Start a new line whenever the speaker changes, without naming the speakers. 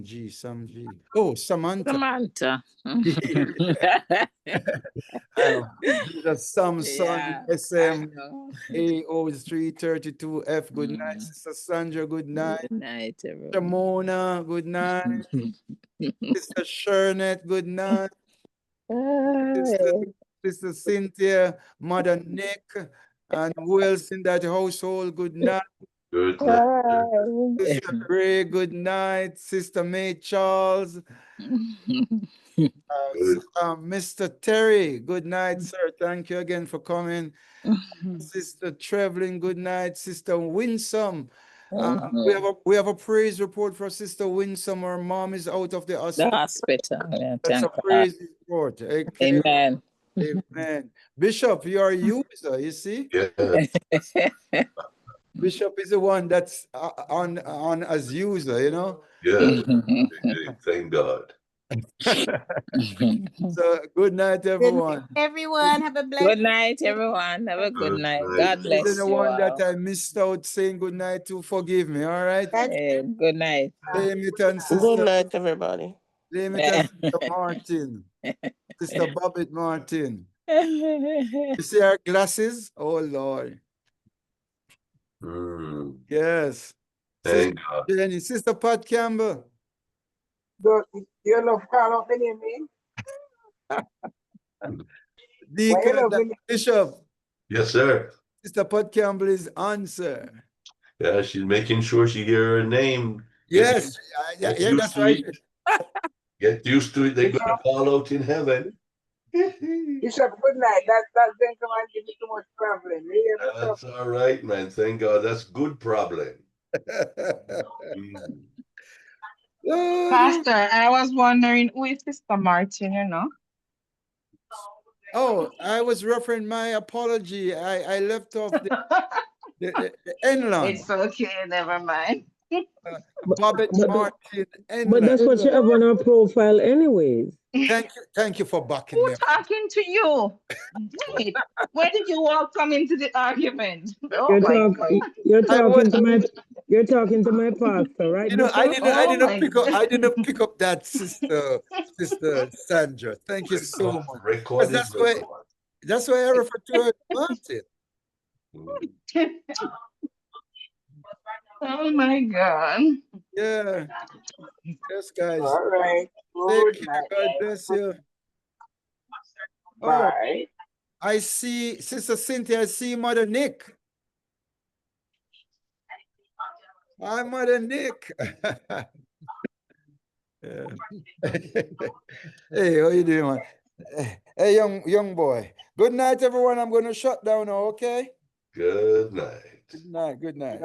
G, some G. Oh, Samantha.
Samantha.
Oh, These are some
Yeah,
son, SM, AO, three thirty-two F. Good night,
Mm.
Sister Sandra. Good night.
Good night,
Sister
everyone.
Mona, good night. Sister Shernet, good night. Sister, Sister Cynthia, Mother Nick, and who else in that household? Good night.
Good.
Uh,
Sister Gray, good night. Sister May Charles, uh,
Good.
s- uh, Mr. Terry, good
Mm.
night, sir. Thank you again for coming. Sister Traveling, good night. Sister Winsome, uh,
Mm.
we have a we have a praise report for Sister Winsome. Her mom is out of the
The
hospital.
hospital, yeah,
That's a
Ah, thank God.
praise report. Okay.
Amen.
Amen. Bishop, you are a user, you see?
Yeah.
Bishop is the one that's uh, uh, on on as user, you know.
Yeah. Thank God.
Good
So good night, everyone.
Everyone, have a blessed
night, everyone. Have a good
Good
night.
night.
God
Good
Even
bless
the
you
one that
all.
I missed out saying good night to, forgive me. All right.
That's-
Eh, Good night.
Blame it on
Good
sister.
night, everybody.
Blame it on sister Martin. Sister Bobbitt Martin. You see our glasses? Oh Lord.
Mm.
Yes.
Thank God.
Jenny, Sister Pat Campbell.
Yo, yo lo falo Benjamin.
Deacon
Hello, Benjamin.
Bishop.
Yes, sir.
Sister Pat Campbell is answer.
Yeah, she's making sure she hear her name. Yes,
Yes, I- yeah,
Get
yeah,
used
that's
to
right.
it. Get used to it. They're gonna fall out in heaven.
Bishop, good night. That that then come and give me too much problem. Me and Bishop,
That's all right, man. Thank God. That's good problem. Mm.
Pastor, I was wondering who is Sister Martin, you know?
Oh, I was referring my apology. I, I left off the, the, the, the Enlon,
It's okay, never mind.
Bobbitt
but-
Martin,
But that's
Enlon.
what you have on her profile anyways.
Thank you, thank you for backing me.
Who
up.
talking to you? Wait, where did you all come into the argument? Oh
You're
my God.
talking, you're
I was-
talking to my, you're talking to my pastor, right?
You know, I
Bishop?
didn't, I
Oh
didn't
my
pick up, I didn't pick up that sister, sister Sandra. Thank you
Oh.
so much.
Record is
That's why-
record.
That's why I refer to her as Martin.
Mm.
Oh my God.
Yeah. Yes, guys.
all right.
Thank
Good
you.
night.
God bless you. Oh,
Bye.
I see Sister Cynthia, I see Mother Nick. Hi, Mother Nick. Yeah. Hey, how you doing, man? Eh, Hey, young, young boy. Good night, everyone. I'm gonna shut down now, okay?
Good night.
Good night, good night.